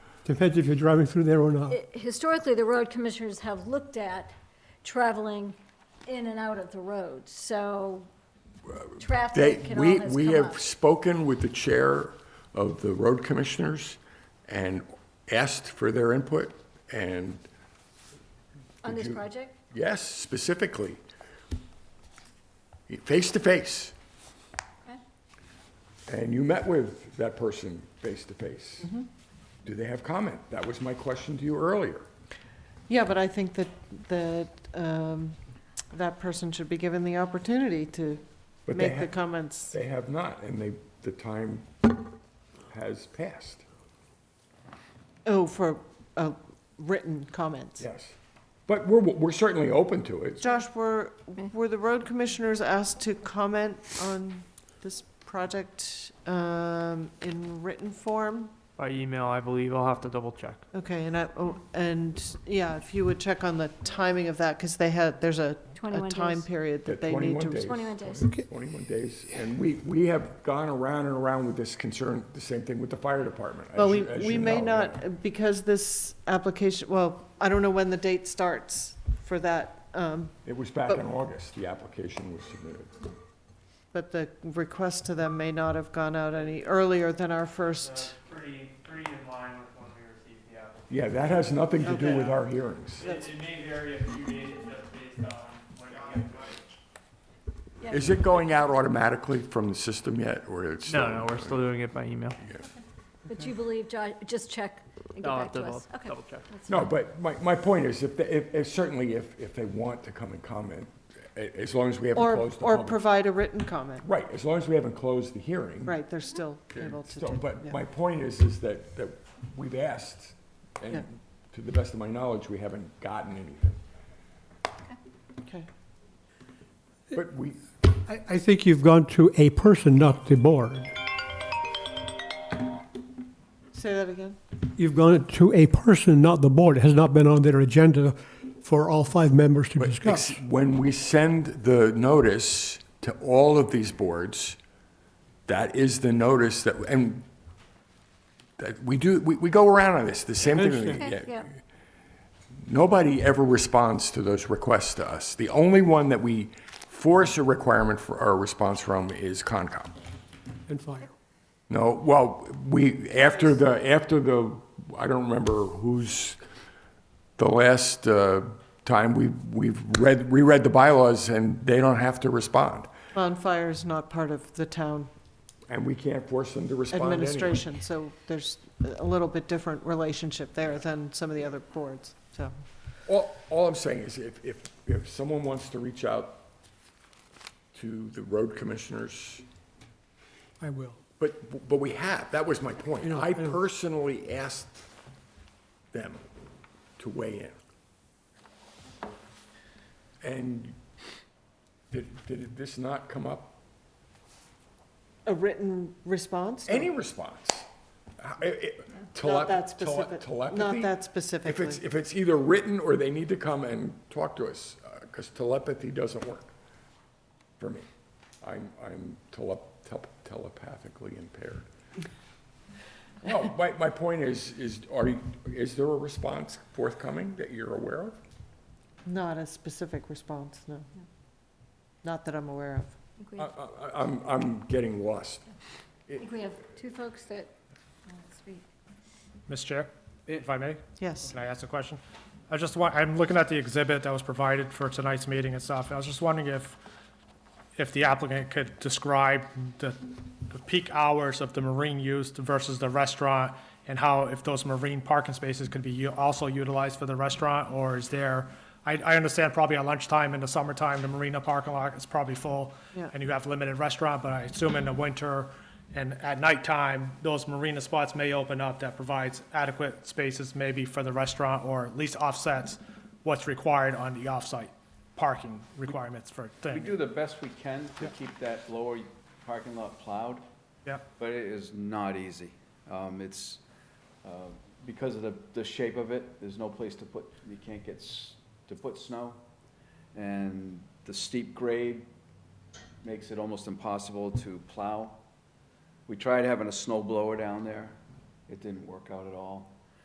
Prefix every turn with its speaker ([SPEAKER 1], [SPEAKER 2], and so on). [SPEAKER 1] Depends if you're driving through there or not.
[SPEAKER 2] i- historically, the road commissioners have looked at traveling in and out of the road, so
[SPEAKER 3] They,
[SPEAKER 2] traffic can
[SPEAKER 3] we,
[SPEAKER 2] always
[SPEAKER 3] we
[SPEAKER 2] come up.
[SPEAKER 3] have spoken with the chair of the road commissioners and asked for their input, and
[SPEAKER 2] On this project?
[SPEAKER 3] yes, specifically, face to face. And you met with that person face to face.
[SPEAKER 2] Mm-hmm.
[SPEAKER 3] Do they have comment? That was my question to you earlier.
[SPEAKER 4] Yeah, but I think that, that, um, that person should be given the opportunity to
[SPEAKER 3] But they
[SPEAKER 4] make the
[SPEAKER 3] ha-
[SPEAKER 4] comments.
[SPEAKER 3] They have not, and they, the time has passed.
[SPEAKER 4] Oh, for, uh, written comments.
[SPEAKER 3] Yes. But we're, we're certainly open to it.
[SPEAKER 4] Josh, were, were the road commissioners asked to comment on this project, um, in written form?
[SPEAKER 5] By email, I believe. I'll have to double check.
[SPEAKER 4] Okay, and I, oh, and, yeah, if you would check on the timing of that, because they had, there's a, a
[SPEAKER 2] 21
[SPEAKER 4] time
[SPEAKER 2] days.
[SPEAKER 4] period that
[SPEAKER 3] Yeah,
[SPEAKER 4] they
[SPEAKER 3] 21
[SPEAKER 4] need to.
[SPEAKER 3] days.
[SPEAKER 2] 21 days.
[SPEAKER 3] 21 days, and we, we have gone around and around with this concern, the same thing with the fire department. as
[SPEAKER 4] Well, we,
[SPEAKER 3] you- as
[SPEAKER 4] we
[SPEAKER 3] you
[SPEAKER 4] may
[SPEAKER 3] know.
[SPEAKER 4] not, because this application, well, I don't know when the date starts for that, um,
[SPEAKER 3] It was back
[SPEAKER 4] but-
[SPEAKER 3] in August, the application was submitted.
[SPEAKER 4] but the request to them may not have gone out any earlier than our first.
[SPEAKER 5] uh, pretty, pretty in line with when we received the application.
[SPEAKER 3] Yeah, that has nothing to do
[SPEAKER 5] Okay.
[SPEAKER 3] with our hearings.
[SPEAKER 4] That's-
[SPEAKER 5] It may vary a few days just based on when it gets.
[SPEAKER 2] Yeah.
[SPEAKER 3] Is it going out automatically from the system yet, or it's?
[SPEAKER 5] No, no, we're still doing it by email.
[SPEAKER 2] But you believe, Josh, just check and get
[SPEAKER 5] I'll have
[SPEAKER 2] back
[SPEAKER 5] to
[SPEAKER 2] to
[SPEAKER 5] double,
[SPEAKER 2] us. Okay.
[SPEAKER 5] double check.
[SPEAKER 2] that's
[SPEAKER 3] No,
[SPEAKER 2] fine.
[SPEAKER 3] but my, my point is, if, they- if, if certainly if, if they want to come and comment, a- as long as we haven't
[SPEAKER 4] Or,
[SPEAKER 3] closed the
[SPEAKER 4] or
[SPEAKER 3] public.
[SPEAKER 4] provide a written comment,
[SPEAKER 3] Right, as long as we haven't closed the hearing.
[SPEAKER 4] right, they're still able to do.
[SPEAKER 3] So, But
[SPEAKER 4] yeah.
[SPEAKER 3] my point is, is that, that we've asked,
[SPEAKER 4] Yeah.
[SPEAKER 3] and to the best of my knowledge, we haven't gotten anything.
[SPEAKER 4] Okay,
[SPEAKER 3] But we,
[SPEAKER 1] I, I think you've gone to a person, not the board.
[SPEAKER 4] say that again?
[SPEAKER 1] You've gone to a person, not the board. It has not been on their agenda for all five members to discuss.
[SPEAKER 3] when we send the notice to all of these boards, that is the notice that, and that we do, we, we go around on this, the same thing. we
[SPEAKER 2] Okay,
[SPEAKER 3] get.
[SPEAKER 2] yeah.
[SPEAKER 3] Nobody ever responds to those requests to us. The only one that we force a requirement for, or a response from is Concom.
[SPEAKER 1] And fire.
[SPEAKER 3] No, well, we, after the, after the, I don't remember who's, the last uh, time we, we've read, reread the bylaws and they don't have to respond.
[SPEAKER 4] Bonfire is not part of the town
[SPEAKER 3] And we can't force them to respond anyway.
[SPEAKER 4] administration, so there's a little bit different relationship there than some of the other boards, so.
[SPEAKER 3] All, all I'm saying is if, if, if someone wants to reach out to the road commissioners,
[SPEAKER 1] I will.
[SPEAKER 3] but, but we have, that was my
[SPEAKER 1] I
[SPEAKER 3] point.
[SPEAKER 1] know,
[SPEAKER 3] I
[SPEAKER 1] I know.
[SPEAKER 3] personally asked them to weigh in. And did, did this not come up?
[SPEAKER 4] A written response?
[SPEAKER 3] Any response? Uh, it- it- tele-
[SPEAKER 4] Not that
[SPEAKER 3] tele-
[SPEAKER 4] specific,
[SPEAKER 3] Telepathy?
[SPEAKER 4] not that
[SPEAKER 3] If it's,
[SPEAKER 4] specifically.
[SPEAKER 3] if it's either written or they need to come and talk to us, because telepathy doesn't work for me. I'm, I'm tele- tel- telepathically impaired. No, my, my point is, is, are, you- is there a response forthcoming that you're aware of?
[SPEAKER 4] Not a specific response, no. Not that I'm aware of.
[SPEAKER 2] I think we
[SPEAKER 3] I,
[SPEAKER 2] have-
[SPEAKER 3] I, I'm, I'm getting lost.
[SPEAKER 2] I think we have two folks that won't speak.
[SPEAKER 6] Mr. Chair, if I may,
[SPEAKER 4] Yes,
[SPEAKER 6] can I ask a question? I just want, I'm looking at the exhibit that was provided for tonight's meeting and stuff, and I was just wondering if, if the applicant could describe the the peak hours of the marine use versus the restaurant, and how if those marine parking spaces could be u- also utilized for the restaurant, or is there, I, I understand probably at lunchtime in the summertime, the marina parking lot is probably full,
[SPEAKER 4] Yeah.
[SPEAKER 6] and you have limited restaurant, but I assume in the winter and at nighttime, those marina spots may open up that provides adequate spaces maybe for the restaurant, or at least offsets what's required on the off-site parking requirements for
[SPEAKER 7] We
[SPEAKER 6] things.
[SPEAKER 7] do the best we can to keep that lower parking lot plowed,
[SPEAKER 6] Yeah,
[SPEAKER 7] but it is not easy. Um, It's, uh, because of the, the shape of it, there's no place to put, you can't get, s- to put snow. And the steep grade makes it almost impossible to plow. We tried having a snow blower down there. It didn't work out at all.